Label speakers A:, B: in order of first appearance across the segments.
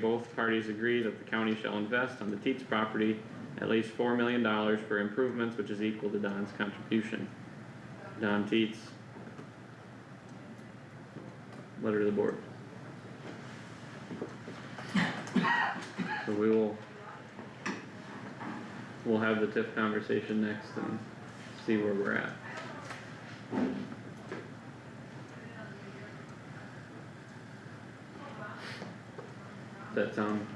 A: Both parties agree that the county shall invest on the Teats property at least four million dollars for improvements, which is equal to Don's contribution. Don Teets. Letter to the board. So we will. We'll have the TIF conversation next and see where we're at. Does that sound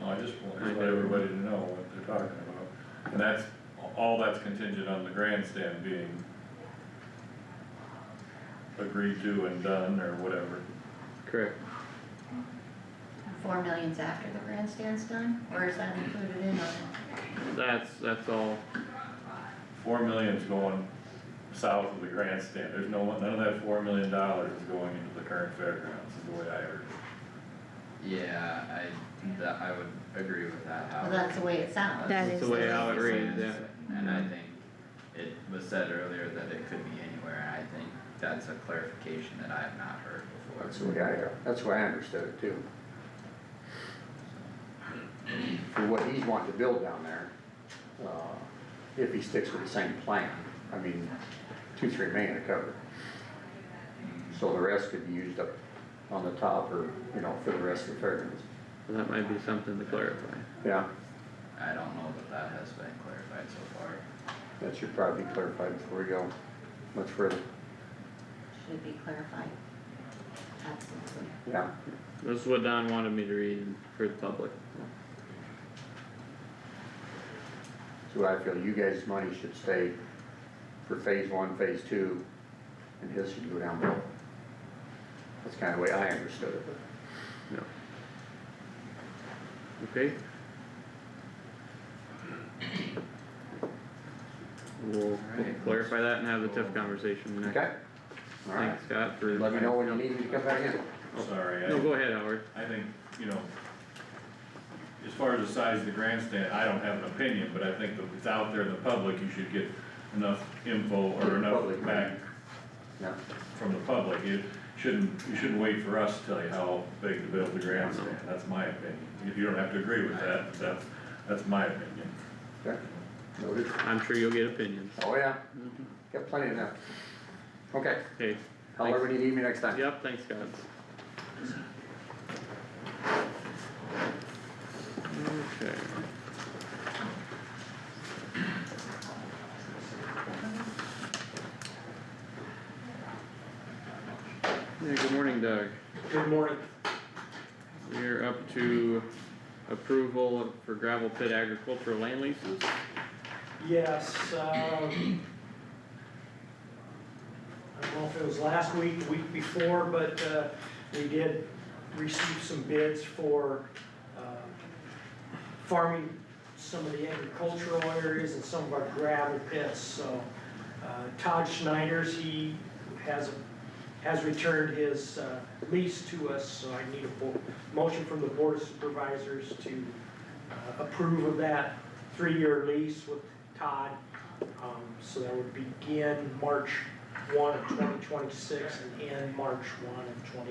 B: Well, I just want
A: I
B: to let
A: know.
B: everybody to know what they're talking about, and that's, all that's contingent on the grandstand being agreed to and done, or whatever.
A: correct?
C: Four million's after the grandstand's done, or is that included in on it?
A: That's, that's all.
B: Four million's going south of the grandstand, there's no, none of that four million dollars is going into the current fairgrounds, is the way I heard it.
D: Yeah, I, that, I would agree with that,
C: Well,
D: Howard.
C: that's the way it sounds.
E: That
A: That's
E: is
A: the way
E: the-
A: how it reads, yeah.
D: And I think it was said earlier that it could be anywhere, and I think that's a clarification that I have not heard before.
F: That's the way I, that's the way I understood it too. For what he's wanting to build down there, uh, if he sticks with the same plan, I mean, two, three million to cover. So the rest could be used up on the top or, you know, for the rest of the fairgrounds.
A: That might be something to clarify.
F: Yeah,
D: I don't know that that has been clarified so far.
F: that should probably be clarified before we go much further,
C: Should be clarified. Absolutely.
F: yeah.
A: This is what Don wanted me to read for the public.
F: So I feel you guys' money should stay for phase one, phase two, and his should go down below. That's kinda the way I understood it, but.
A: No. Okay. We'll we'll
D: Alright.
A: clarify that and have the TIF conversation next.
F: Okay? Alright,
A: Thanks Scott for.
F: let me know when you need me to come back in.
A: Oh.
B: Sorry, I.
A: No, go ahead, Howard.
B: I think, you know, as far as the size of the grandstand, I don't have an opinion, but I think that if it's out there in the public, you should get enough info or enough
F: Public.
B: back
F: Yeah,
B: from the public. You shouldn't, you shouldn't wait for us to tell you how big to build the grandstand, that's my opinion. If you don't have to agree with that, that's, that's my opinion.
F: okay, noted.
A: I'm sure you'll get opinions.
F: Oh, yeah, got plenty of that. Okay,
A: Okay.
F: however you need me next time.
A: Yep, thanks Scott. Okay. Yeah, good morning Doug.
G: Good morning.
A: We're up to approval for gravel pit agricultural land leases.
G: Yes, um, I don't know if it was last week, the week before, but, uh, we did receive some bids for, uh, farming some of the agricultural areas and some of our gravel pits, so, uh, Todd Schneider's, he has, has returned his, uh, lease to us, so I need a bo- motion from the board of supervisors to uh, approve of that three-year lease with Todd. Um, so that would begin March one of twenty twenty-six and end March one of twenty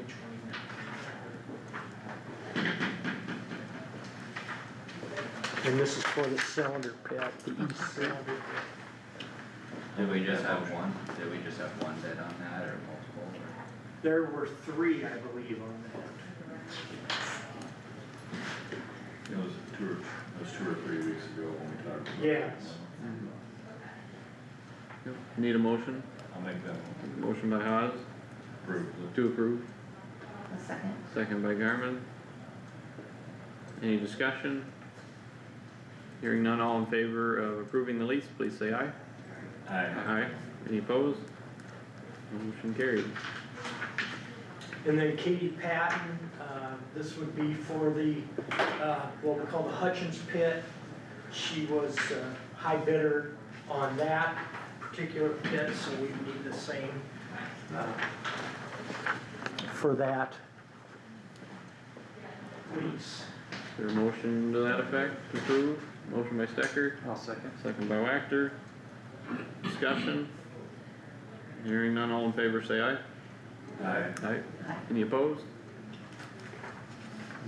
G: twenty-nine.
H: And this is for the cylinder pit, the east
D: Did we just have one, did we just have one bid on that, or multiple, or?
G: There were three, I believe, on that.
B: It was two or, it was two or three weeks ago when we talked about it.
G: Yes.
A: Need a motion?
B: I'll make that
A: Motion by Haas
B: approve
A: to approve,
C: A second.
A: second by Garmin. Any discussion? Hearing none, all in favor of approving the lease, please say aye.
B: the, I,
A: Aye. Any opposed? Motion carried.
G: And then Katie Patton, uh, this would be for the, uh, what we call the Hutchins pit. She was uh, high bidder on that particular pit, so we need the same, uh,
H: for that.
G: lease.
A: Is there a motion to that effect, to approve? Motion by Stecker,
D: I'll second.
A: second by Wactor. Discussion? Hearing none, all in favor say aye.
B: I,
A: Aye. Any opposed?